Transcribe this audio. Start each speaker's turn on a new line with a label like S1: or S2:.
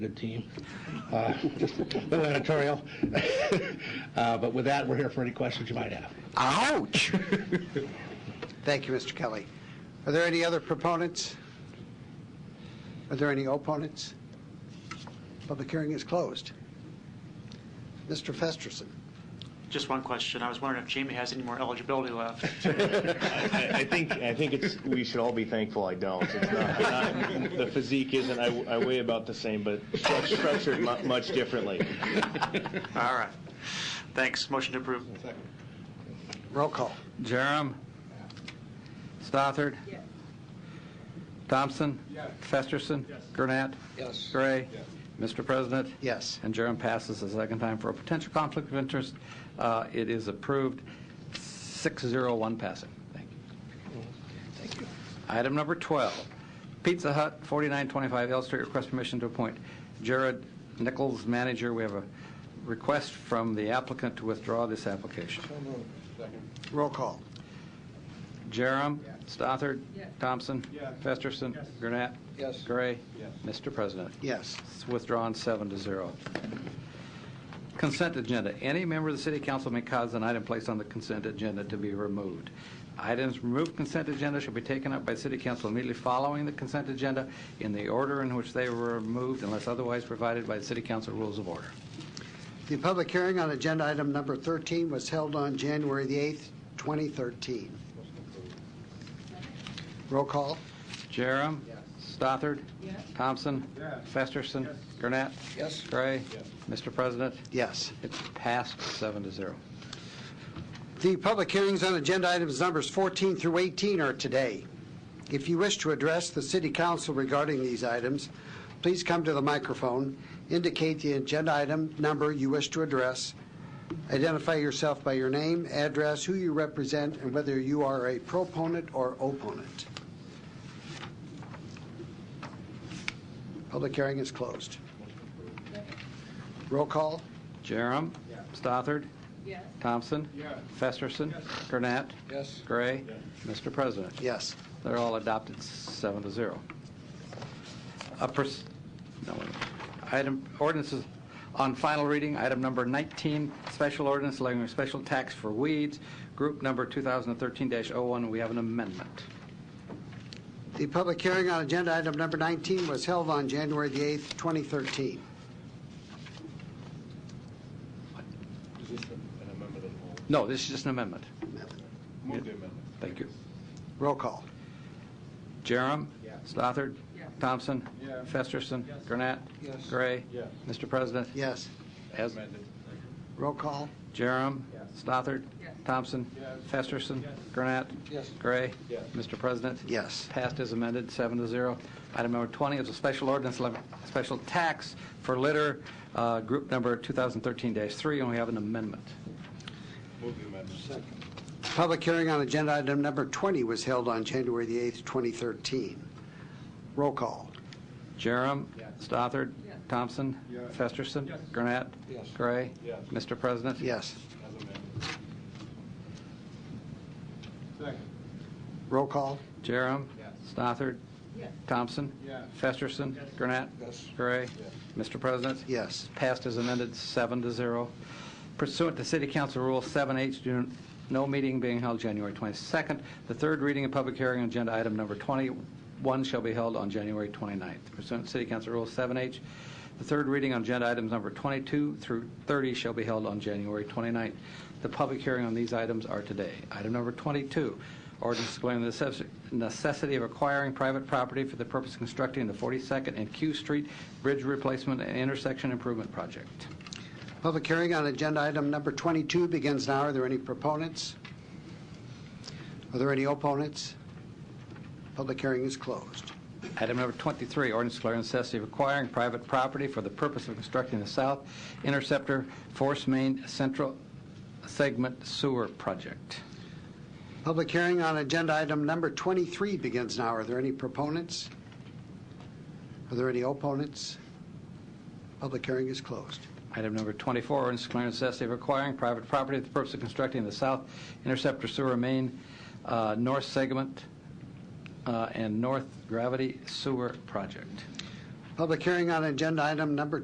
S1: Good team. Uh, Just a little editorial. Uh, But with that, we're here for any questions you might have.
S2: Ouch! Thank you, Mr. Kelly. Are there any other proponents? Are there any opponents? Public hearing is closed. Mr. Festerson.
S3: Just one question. I was wondering if Jamie has any more eligibility left.
S4: I, I think I think it's we should all be thankful I don't. It's not, I'm not- the physique isn't. I, I weigh about the same, but struct- structured mu- much differently.
S3: All right. Thanks. Motion to approve.
S2: Roll call.
S5: Jerem. Stothard. Thompson. Festerson. Gurnett.
S2: Yes.
S5: Gray. Mr. President.
S2: Yes.
S5: And Jerem passes a second time for a potential conflict of interest. Uh, It is approved, 601 passing. Thank you. Item number 12, Pizza Hut, 4925 L Street, request permission to appoint Jared Nichols, manager. We have a request from the applicant to withdraw this application.
S2: Roll call.
S5: Jerem. Stothard. Thompson. Festerson. Gurnett.
S2: Yes.
S5: Gray. Mr. President.
S2: Yes.
S5: It's withdrawn seven to zero. Consent agenda. Any member of the city council may cause an item placed on the consent agenda to be removed. Items removed from consent agenda shall be taken up by city council immediately following the consent agenda in the order in which they were removed unless otherwise provided by the city council rules of order.
S2: The public hearing on agenda item number 13 was held on January the 8th, 2013. Roll call.
S5: Jerem. Stothard. Thompson. Festerson. Gurnett.
S2: Yes.
S5: Gray. Mr. President,
S2: Yes.
S5: it's passed seven to zero.
S2: The public hearings on agenda items numbers 14 through 18 are today. If you wish to address the city council regarding these items, please come to the microphone, indicate the agenda item number you wish to address, identify yourself by your name, address, who you represent, and whether you are a proponent or opponent. Public hearing is closed. Roll call?
S5: Jerem. Stothard.
S6: Yes.
S5: Thompson. Festerson. Gurnett.
S2: Yes.
S5: Gray. Mr. President.
S2: Yes.
S5: They're all adopted seven to zero. A pers- no, wait a minute. Item, ordinances on final reading, item number 19, special ordinance allowing a special tax for weeds, group number 2013-01. We have an amendment.
S2: The public hearing on agenda item number 19 was held on January the 8th, 2013.
S5: No, this is just an amendment. Thank you.
S2: Roll call.
S5: Jerem. Stothard.
S6: Yes.
S5: Thompson. Festerson. Gurnett. Gray. Mr. President.
S2: Yes.
S5: As
S2: Roll call.
S5: Jerem. Stothard.
S6: Yes.
S5: Thompson. Festerson. Gurnett. Gray. Mr. President.
S2: Yes.
S5: Passed as amended, seven to zero. Item number 20 is a special ordinance, lev- special tax for litter, uh, group number 2013-3, and we have an amendment.
S2: Public hearing on agenda item number 20 was held on January the 8th, 2013. Roll call.
S5: Jerem. Stothard. Thompson. Festerson. Gurnett. Gray. Mr. President.
S2: Yes. Roll call.
S5: Jerem. Stothard.
S6: Yes.
S5: Thompson. Festerson. Gurnett. Gray. Mr. President.
S2: Yes.
S5: passed as amended, seven to zero. Pursuant to City Council Rule 7H, do no meeting being held January 22nd. The third reading and public hearing on agenda item number 21 shall be held on January 29th. Pursuant to City Council Rule 7H, the third reading on agenda items number 22 through 30 shall be held on January 29th. The public hearing on these items are today. Item number 22, Ordinance declaring the necess- necessity of acquiring private property for the purpose of constructing the 42nd and Q Street Bridge Replacement and Intersection Improvement Project.
S2: Public hearing on agenda item number 22 begins now. Are there any proponents? Are there any opponents? Public hearing is closed.
S5: Item number 23, ordinance declaring necessity of acquiring private property for the purpose of constructing the South Interceptor Force Main Central Segment Sewer Project.
S2: Public hearing on agenda item number 23 begins now. Are there any proponents? Are there any opponents? Public hearing is closed.
S5: Item number 24, ordinance declaring necessity of acquiring private property for the purpose of constructing the South Interceptor Sewer Main uh, North Segment uh, and North Gravity Sewer Project.
S2: Public hearing on agenda item number